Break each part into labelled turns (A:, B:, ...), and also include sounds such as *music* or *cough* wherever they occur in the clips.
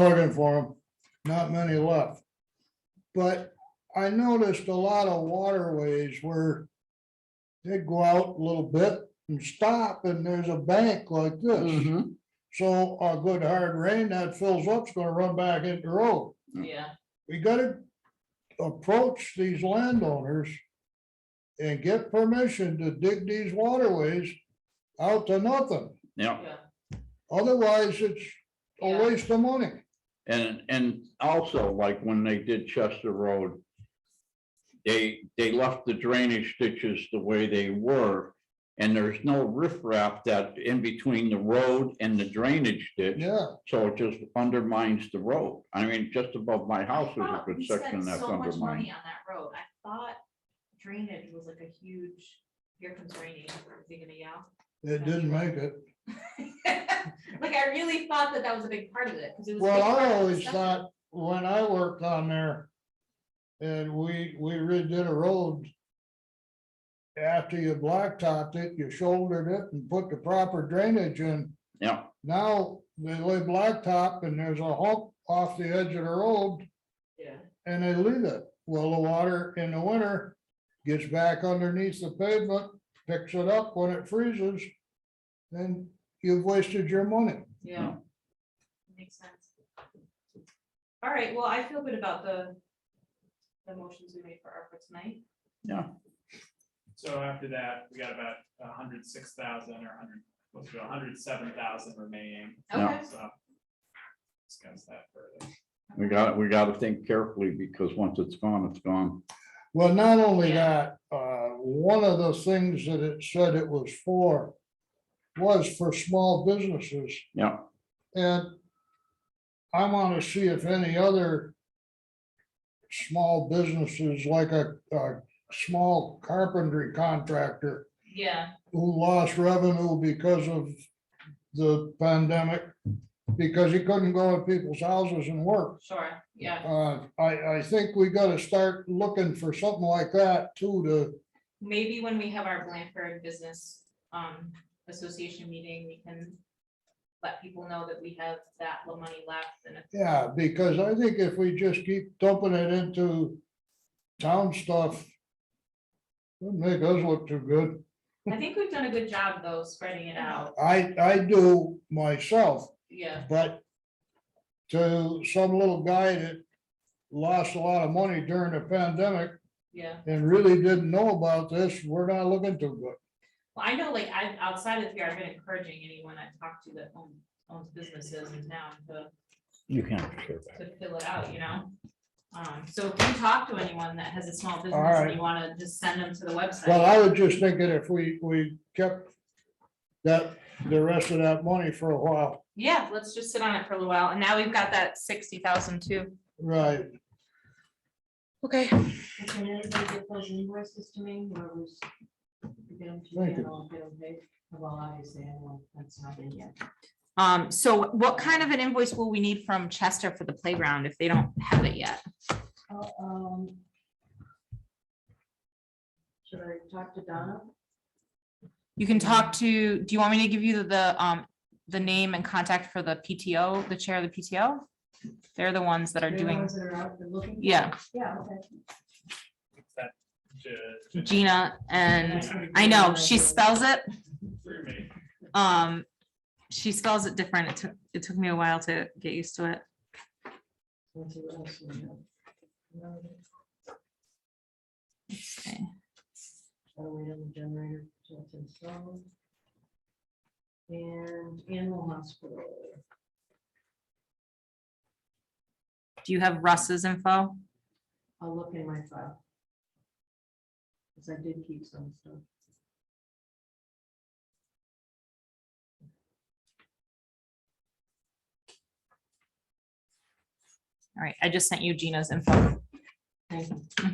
A: looking for them, not many left. But I noticed a lot of waterways where they go out a little bit and stop and there's a bank like
B: Mm-hmm.
A: this.
C: Mhm.
A: So a good hard rain that fills up is gonna run back into the road.
B: Yeah,
A: We gotta approach these landowners and get permission to dig these waterways out to nothing.
C: Yeah,
B: yeah.
A: Otherwise, it's a
B: yeah.
A: waste of money.
C: and, and also like when they did Chester Road. They, they left the drainage ditches the way they were. And there's no riprap that in between the road and the drainage ditch,
A: Yeah.
C: so it just undermines the road. I mean, just above my house
B: I
C: is a
B: thought
C: good
B: we spent
C: section that's
B: so much
C: undermined.
B: money On that road, I thought drainage was like a huge, here comes raining, is he gonna yell?
A: It didn't make it.
B: *laughs* Like, I really thought that that was a big part of it, because it was. a
A: Well,
B: big part of
A: I
B: the
A: always
B: discussion.
A: thought, when I worked on there, and we, we redid a road. After you blacktopped it, you shouldered it and put the proper drainage in.
C: Yeah,
A: Now, they lay blacktop and there's a hump off the edge of the road
B: Yeah,
A: and they leave it. Well, the water in the winter gets back underneath the pavement, picks it up when it freezes. Then you've wasted your money.
B: yeah. Makes sense. All right, well, I feel good about the, the motions we made for ARPA tonight.
D: So after that, we got about a hundred six thousand or hundred, close to a hundred seven thousand remaining,
C: Yeah.
B: Okay.
D: so. Discuss that further.
C: we got, we gotta think carefully because once it's gone, it's gone.
A: Well, not only
B: Yeah.
A: that, uh, one of the things that it said it was for was for small businesses
C: Yeah,
A: and I want to see if any other small businesses, like a, a small carpentry contractor
B: Yeah,
A: who lost revenue because of the pandemic, because he couldn't go to people's houses and work.
B: sure, yeah,
A: Uh, I, I think we gotta start looking for something like that too, to
B: maybe when we have our Blanford Business um Association meeting, we can. Let people know that we have that little money left and if
A: Yeah, because I think if we just keep dumping it into town stuff. It'd make us look too good.
B: I think we've done a good job though, spreading it out,
A: I, I do myself,
B: yeah,
A: but. To some little guy that lost a lot of money during the pandemic
B: yeah.
A: and really didn't know about this, we're not looking too good.
B: Well, I know like I, outside of here, I've been encouraging anyone I talk to that own- owns businesses in town to,
C: you can't. share that.
B: to fill it out, you know? Um, so if you talk to anyone that has a small business
A: right.
B: and you wanna just send them to the website.
A: Well, I was just thinking if we, we kept that, the rest of that money for a while,
B: Yeah, let's just sit on it for a little while, and now we've got that sixty thousand too.
A: right?
B: Okay.
E: Can anybody get those invoices to me, whoever's? Get them to me,
A: Thank you.
E: and I'll get them paid, well, obviously, I know that's not in yet.
B: Um, so what kind of an invoice will we need from Chester for the playground if they don't have it yet?
E: Uh, um, Should I talk to Donna?
B: You can talk to, do you want me to give you the- the, um, the name and contact for the PTO, the chair of the PTO? They're the ones that are
E: They're the
B: doing,
E: ones that are out there looking?
B: yeah,
E: Yeah, okay.
D: It's that ju- ju-
B: Gina, and I know, she spells it,
D: three minute-
B: um, she spells it different. It took, it took me a while to get used to it.
E: Let's see what else we have. No,
B: Okay.
E: gotta wait on the generator till it's installed. And animal hospital,
B: Do you have Russ's info?
E: I'll look in my file. Cause I did keep some stuff.
B: All right, I just sent you Gina's info. Mm-hmm.
E: Thank you.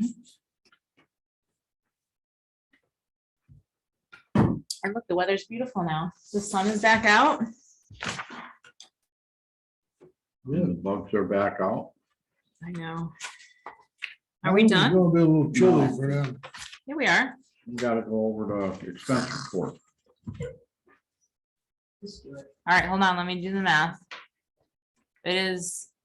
B: And look, the weather's beautiful now. The sun is back out.
C: And the bugs are back out.
B: I know. Are we done?
A: It's gonna be a little chilly
C: No.
A: for them.
B: Here we are.
C: We gotta go over the expense report.
E: Just do it.
B: All right, hold on, let me do the math. It is